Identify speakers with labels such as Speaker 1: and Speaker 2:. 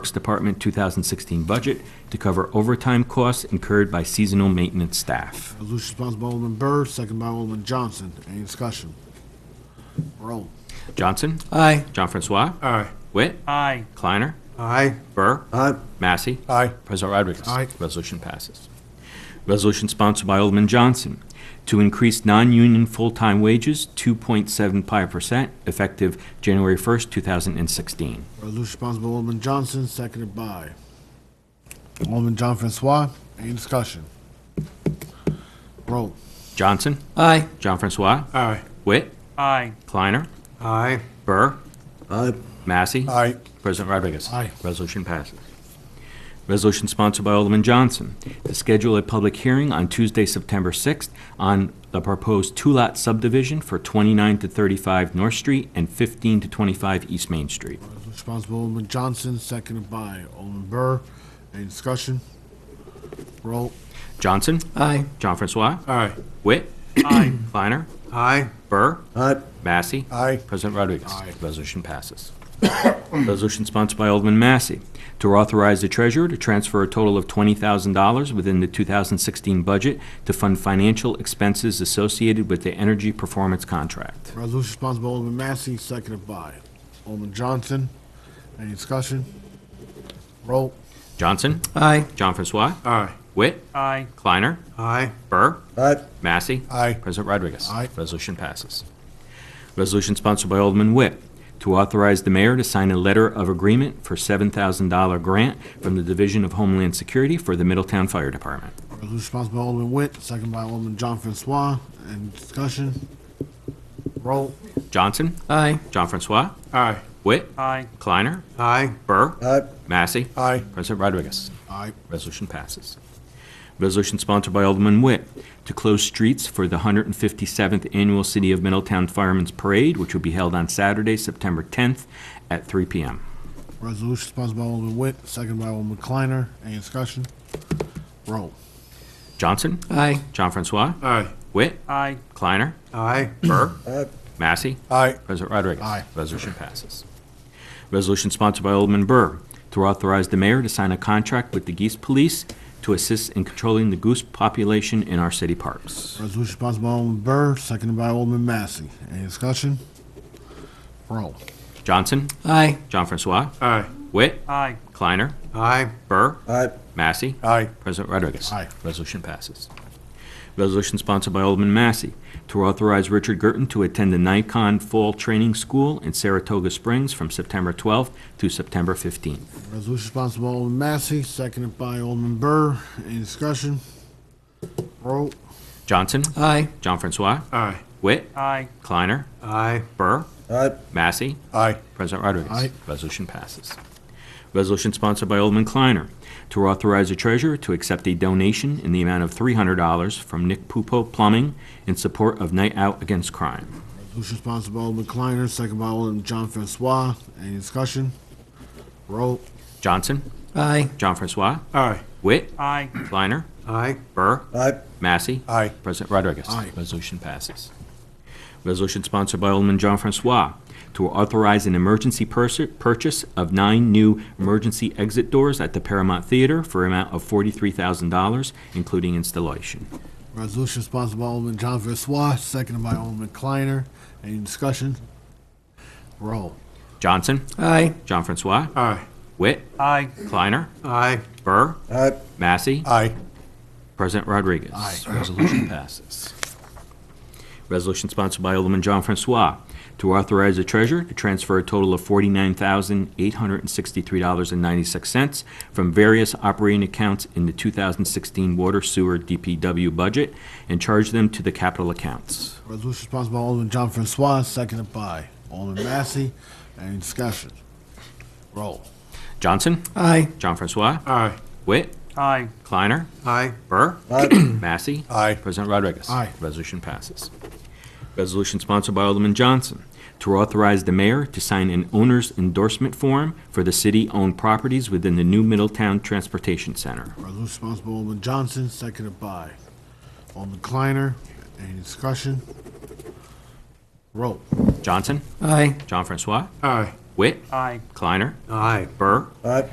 Speaker 1: Works Department 2016 budget to cover overtime costs incurred by seasonal maintenance staff.
Speaker 2: Resolution sponsored by Alderman Byrd, second by Alderman Johnson. Any discussion? Roll.
Speaker 1: Johnson?
Speaker 3: Aye.
Speaker 1: John Francois?
Speaker 4: Aye.
Speaker 1: Witt?
Speaker 5: Aye.
Speaker 1: Kleiner?
Speaker 4: Aye.
Speaker 1: Burr?
Speaker 3: Aye.
Speaker 1: Massey?
Speaker 4: Aye.
Speaker 1: President Rodriguez?
Speaker 2: Aye.
Speaker 1: Resolution passes. Resolution sponsored by Alderman Johnson to increase non-union full-time wages 2.75% effective January 1st, 2016.
Speaker 2: Resolution sponsored by Alderman Johnson, seconded by Alderman John Francois. Any discussion? Roll.
Speaker 1: Johnson?
Speaker 3: Aye.
Speaker 1: John Francois?
Speaker 4: Aye.
Speaker 1: Witt?
Speaker 5: Aye.
Speaker 1: Kleiner?
Speaker 4: Aye.
Speaker 1: Burr?
Speaker 3: Aye.
Speaker 1: Massey?
Speaker 4: Aye.
Speaker 1: President Rodriguez.
Speaker 2: Aye.
Speaker 1: Resolution passes. Resolution sponsored by Alderman Johnson to schedule a public hearing on Tuesday, September 6th on the proposed two-lot subdivision for 29 to 35 North Street and 15 to 25 East Main Street.
Speaker 2: Resolution sponsored by Alderman Johnson, seconded by Alderman Byrd. Any discussion? Roll.
Speaker 1: Johnson?
Speaker 3: Aye.
Speaker 1: John Francois?
Speaker 4: Aye.
Speaker 1: Witt? Aye. Kleiner?
Speaker 4: Aye.
Speaker 1: Burr?
Speaker 3: Aye.
Speaker 1: Massey?
Speaker 4: Aye.
Speaker 1: President Rodriguez?
Speaker 2: Aye.
Speaker 1: Resolution passes. Resolution sponsored by Alderman Massey to authorize the treasurer to transfer a total of $20,000 within the 2016 budget to fund financial expenses associated with the energy performance contract.
Speaker 2: Resolution sponsored by Alderman Massey, seconded by Alderman Johnson. Any discussion? Roll.
Speaker 1: Johnson?
Speaker 3: Aye.
Speaker 1: John Francois?
Speaker 4: Aye.
Speaker 1: Witt?
Speaker 5: Aye.
Speaker 1: Kleiner?
Speaker 4: Aye.
Speaker 1: Burr?
Speaker 3: Aye.
Speaker 1: Massey?
Speaker 4: Aye.
Speaker 1: President Rodriguez?
Speaker 2: Aye.
Speaker 1: Resolution passes. Resolution sponsored by Alderman Witt to authorize the mayor to sign a letter of agreement for $7,000 grant from the Division of Homeland Security for the Middletown Fire Department.
Speaker 2: Resolution sponsored by Alderman Witt, seconded by Alderman John Francois. Any discussion? Roll.
Speaker 1: Johnson?
Speaker 3: Aye.
Speaker 1: John Francois?
Speaker 4: Aye.
Speaker 1: Witt?
Speaker 5: Aye.
Speaker 1: Kleiner?
Speaker 4: Aye.
Speaker 1: Burr?
Speaker 3: Aye.
Speaker 1: Massey?
Speaker 4: Aye.
Speaker 1: President Rodriguez?
Speaker 2: Aye.
Speaker 1: Resolution passes. Resolution sponsored by Alderman Witt to close streets for the 157th Annual City of Middletown Firemen's Parade, which will be held on Saturday, September 10th at 3 p.m.
Speaker 2: Resolution sponsored by Alderman Witt, seconded by Alderman Kleiner. Any discussion? Roll.
Speaker 1: Johnson?
Speaker 3: Aye.
Speaker 1: John Francois?
Speaker 4: Aye.
Speaker 1: Witt?
Speaker 5: Aye.
Speaker 1: Kleiner?
Speaker 4: Aye.
Speaker 1: Burr?
Speaker 3: Aye.
Speaker 1: Massey?
Speaker 4: Aye.
Speaker 1: President Rodriguez?
Speaker 2: Aye.
Speaker 1: Resolution passes. Resolution sponsored by Alderman Burr to authorize the mayor to sign a contract with the Geese Police to assist in controlling the goose population in our city parks.
Speaker 2: Resolution sponsored by Alderman Burr, seconded by Alderman Massey. Any discussion? Roll.
Speaker 1: Johnson?
Speaker 3: Aye.
Speaker 1: John Francois?
Speaker 4: Aye.
Speaker 1: Witt?
Speaker 5: Aye.
Speaker 1: Kleiner?
Speaker 4: Aye.
Speaker 1: Burr?
Speaker 3: Aye.
Speaker 1: Massey?
Speaker 4: Aye.
Speaker 1: President Rodriguez?
Speaker 2: Aye.
Speaker 1: Resolution passes. Resolution sponsored by Alderman Massey to authorize Richard Gerton to attend the Nikon Fall Training School in Saratoga Springs from September 12th to September 15th.
Speaker 2: Resolution sponsored by Alderman Massey, seconded by Alderman Burr. Any discussion? Roll.
Speaker 1: Johnson?
Speaker 3: Aye.
Speaker 1: John Francois?
Speaker 4: Aye.
Speaker 1: Witt?
Speaker 5: Aye.
Speaker 1: Kleiner?
Speaker 4: Aye.
Speaker 1: Burr?
Speaker 3: Aye.
Speaker 1: Massey?
Speaker 4: Aye.
Speaker 1: President Rodriguez?
Speaker 2: Aye.
Speaker 1: Resolution passes. Resolution sponsored by Alderman Kleiner to authorize the treasurer to accept a donation in the amount of $300 from Nick Pupo Plumbing in support of Night Out Against Crime.
Speaker 2: Resolution sponsored by Alderman Kleiner, seconded by Alderman John Francois. Any discussion? Roll.
Speaker 1: Johnson?
Speaker 3: Aye.
Speaker 1: John Francois?
Speaker 4: Aye.
Speaker 1: Witt?
Speaker 5: Aye.
Speaker 1: Kleiner?
Speaker 4: Aye.
Speaker 1: Burr?
Speaker 3: Aye.
Speaker 1: Massey?
Speaker 4: Aye.
Speaker 1: President Rodriguez?
Speaker 2: Aye.
Speaker 1: Resolution passes. Resolution sponsored by Alderman John Francois to authorize an emergency purs- purchase of nine new emergency exit doors at the Paramount Theater for an amount of $43,000, including installation.
Speaker 2: Resolution sponsored by Alderman John Francois, seconded by Alderman Kleiner. Any discussion? Roll.
Speaker 1: Johnson?
Speaker 3: Aye.
Speaker 1: John Francois?
Speaker 4: Aye.
Speaker 1: Witt?
Speaker 5: Aye.
Speaker 1: Kleiner?
Speaker 4: Aye.
Speaker 1: Burr?
Speaker 3: Aye.
Speaker 1: Massey?
Speaker 4: Aye.
Speaker 1: President Rodriguez. Resolution passes. Resolution sponsored by Alderman John Francois to authorize the treasurer to transfer a total of $49,863.96 from various operating accounts in the 2016 Water Sewer DPW budget and charge them to the capital accounts.
Speaker 2: Resolution sponsored by Alderman John Francois, seconded by Alderman Massey. Any discussion? Roll.
Speaker 1: Johnson?
Speaker 2: Uh,
Speaker 3: Aye.
Speaker 1: John Francois?
Speaker 4: Aye.
Speaker 1: Witt?
Speaker 5: Aye.
Speaker 1: Kleiner?
Speaker 4: Aye.
Speaker 1: Burr? Massey?
Speaker 4: Aye.
Speaker 1: President Rodriguez.
Speaker 2: Aye.
Speaker 1: Resolution passes. Resolution sponsored by Alderman Johnson to authorize the mayor to sign an owner's endorsement form for the city-owned properties within the new Middletown Transportation Center.
Speaker 2: Resolution sponsored by Alderman Johnson, seconded by Alderman Kleiner. Any discussion? Roll.
Speaker 1: Johnson?
Speaker 3: Aye.
Speaker 1: John Francois?
Speaker 4: Aye.
Speaker 1: Witt?
Speaker 5: Aye.
Speaker 1: Kleiner?
Speaker 4: Aye.
Speaker 1: Burr?
Speaker 3: Aye.